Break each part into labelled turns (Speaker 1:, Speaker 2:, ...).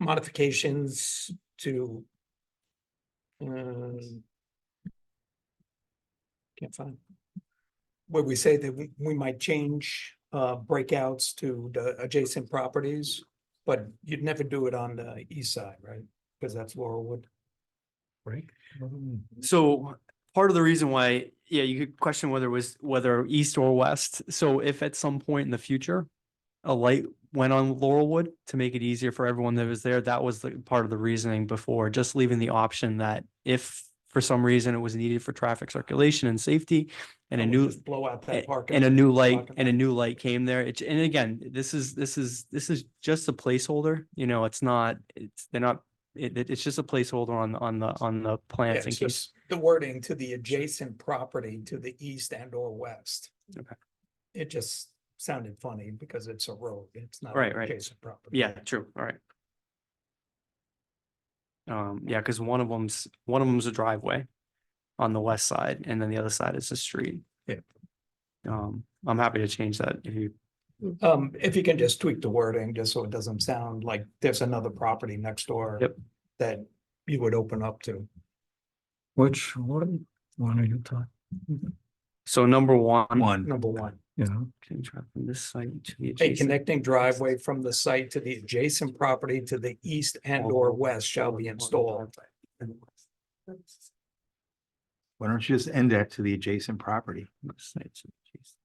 Speaker 1: modifications to. um, Can't find. Where we say that we, we might change, uh, breakouts to the adjacent properties, but you'd never do it on the east side, right? Because that's Laurelwood.
Speaker 2: Right? Mm.
Speaker 3: So part of the reason why, yeah, you could question whether it was whether east or west. So if at some point in the future, a light went on Laurelwood to make it easier for everyone that was there, that was the part of the reasoning before, just leaving the option that if for some reason it was needed for traffic circulation and safety and a
Speaker 1: would
Speaker 3: new
Speaker 1: just Blow out
Speaker 3: a-
Speaker 1: that parking.
Speaker 3: and a new light
Speaker 1: parking
Speaker 3: and a
Speaker 1: lot.
Speaker 3: new light came there. It's, and again, this is, this is, this is just a placeholder, you know, it's not, it's, they're not, it, it- it's just a placeholder on, the on the, on the
Speaker 1: Yeah,
Speaker 3: plans in
Speaker 1: it's
Speaker 3: case.
Speaker 1: just The wording to the adjacent property to the east and or west.
Speaker 3: Okay.
Speaker 1: It just sounded funny because it's a road, it's not. an
Speaker 3: Right, right.
Speaker 1: Adjacent property.
Speaker 3: Yeah, true, all right. Um, yeah, because one of them's, one of them's a driveway on the west side, and then the other side is a street.
Speaker 1: Yeah.
Speaker 3: Um, I'm happy to change that if you,
Speaker 1: Um, if you can just tweak the wording, just so it doesn't sound like there's another property next door.
Speaker 3: Yep.
Speaker 1: That you would open up to.
Speaker 2: Which, what, one are you talking,
Speaker 3: so number one.
Speaker 2: one,
Speaker 1: Number one,
Speaker 2: you know,
Speaker 3: can drive From this side to the
Speaker 1: a
Speaker 3: adjacent.
Speaker 1: connecting driveway from the site to the adjacent property to the east and or west shall be installed.
Speaker 4: Why don't you just end that to the adjacent property?
Speaker 3: west side to the adjacent-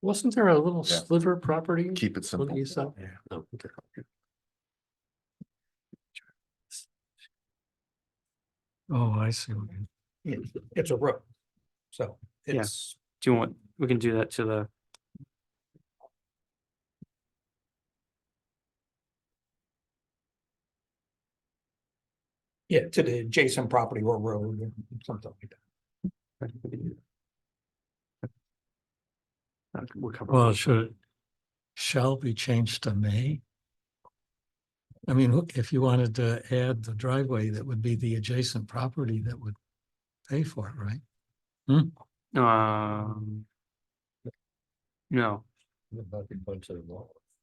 Speaker 5: Wasn't there a little
Speaker 6: Yeah.
Speaker 5: sliver property?
Speaker 6: Keep it
Speaker 5: on the
Speaker 6: simple.
Speaker 5: east side?
Speaker 4: Yeah.
Speaker 5: No, okay.
Speaker 2: oh, I see. what you-
Speaker 1: It's a road. So
Speaker 3: Yeah.
Speaker 1: it's
Speaker 3: Do you want, we can do that to the.
Speaker 1: Yeah, to the adjacent property or road, or something like that.
Speaker 3: we can do that. Uh, We'll cover.
Speaker 2: Well, should, it shall be changed to may? I mean, look, if you wanted to add the driveway, that would be the adjacent property that would pay for it, right?
Speaker 3: Um. No,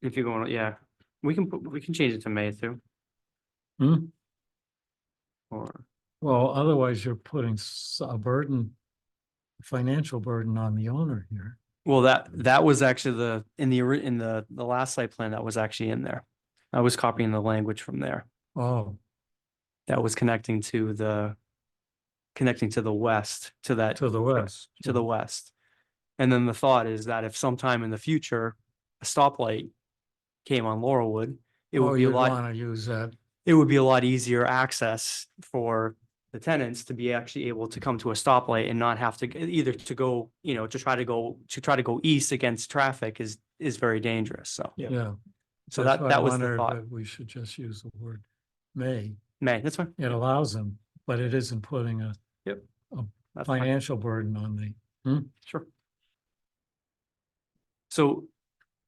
Speaker 3: if you're going, yeah, we can, put we can change it to May too,
Speaker 2: Hmm?
Speaker 3: or,
Speaker 2: Well, otherwise you're putting s- a burden, financial burden on the owner here.
Speaker 3: well, that, that was actually the, in the, ori- in the, the last site plan that was actually in there. I was copying the language from there,
Speaker 2: Oh,
Speaker 3: that was connecting to the, connecting to the west, to that
Speaker 2: to the west.
Speaker 3: to the west. And then the thought is that if sometime in the future, a stoplight came on Laurelwood, it
Speaker 2: Oh,
Speaker 3: would be a
Speaker 2: you'd
Speaker 3: lot,
Speaker 2: Wanna use that,
Speaker 3: it would be a lot easier access for the tenants to be actually able to come to a stoplight and not have to g- either to go, you know, to try to go, to try to go east against traffic is, is very dangerous. So,
Speaker 1: Yeah.
Speaker 2: yeah.
Speaker 3: so
Speaker 2: That's
Speaker 3: that,
Speaker 2: why I
Speaker 3: that was the
Speaker 2: wondered
Speaker 3: thought.
Speaker 2: if We should just use the word may.
Speaker 3: May, that's fine.
Speaker 2: It allows them, but it isn't putting a
Speaker 3: That's fine.
Speaker 2: financial burden on the,
Speaker 3: Sure. So,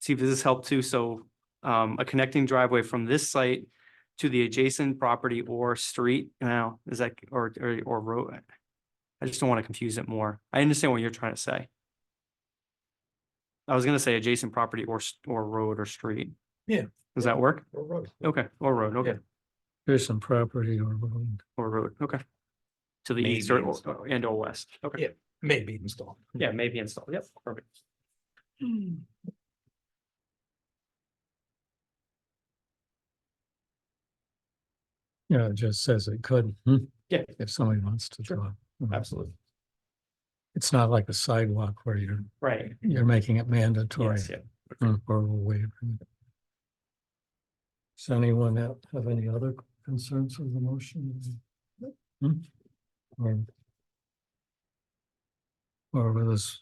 Speaker 3: see if this has helped too, so, um, a connecting driveway from this site to the adjacent property or street, now, is that, or, or, or road? I just don't want to confuse it more, I understand what you're trying to say. I was gonna say adjacent property or, s- or road or street.
Speaker 1: Yeah.
Speaker 3: Does that work?
Speaker 1: Or road.
Speaker 3: Okay, or road, okay,
Speaker 2: here's some property or road.
Speaker 3: or road, okay. To the east or,
Speaker 6: Maybe it's-
Speaker 3: or- and or west, okay.
Speaker 1: Yeah. May be installed.
Speaker 3: Yeah, maybe installed, yep, perfect.
Speaker 2: Yeah, it just says it could. hmm,
Speaker 3: Yeah.
Speaker 2: If somebody wants to
Speaker 3: Sure.
Speaker 2: draw. Hmm.
Speaker 3: Absolutely.
Speaker 2: It's not like a sidewalk where you're,
Speaker 3: Right.
Speaker 2: you're making it mandatory
Speaker 3: Yes, yeah.
Speaker 2: or or a waiver. Does anyone have have any other concerns with the motion? Hmm? Or or with this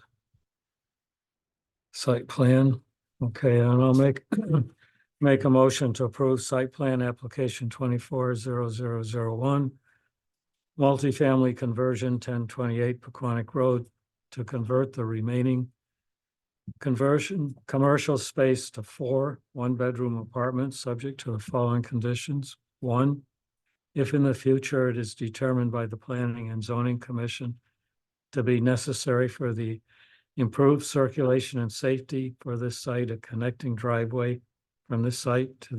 Speaker 2: site plan? Okay, and I'll make, make a motion to approve site plan application twenty-four zero zero zero one. Multifamily conversion ten twenty-eight Paquonic Road to convert the remaining conversion, commercial space to four one-bedroom apartments, subject to the following conditions. One, if in the future it is determined by the Planning and Zoning Commission to be necessary for the improved circulation and safety for this site, a connecting driveway from this site to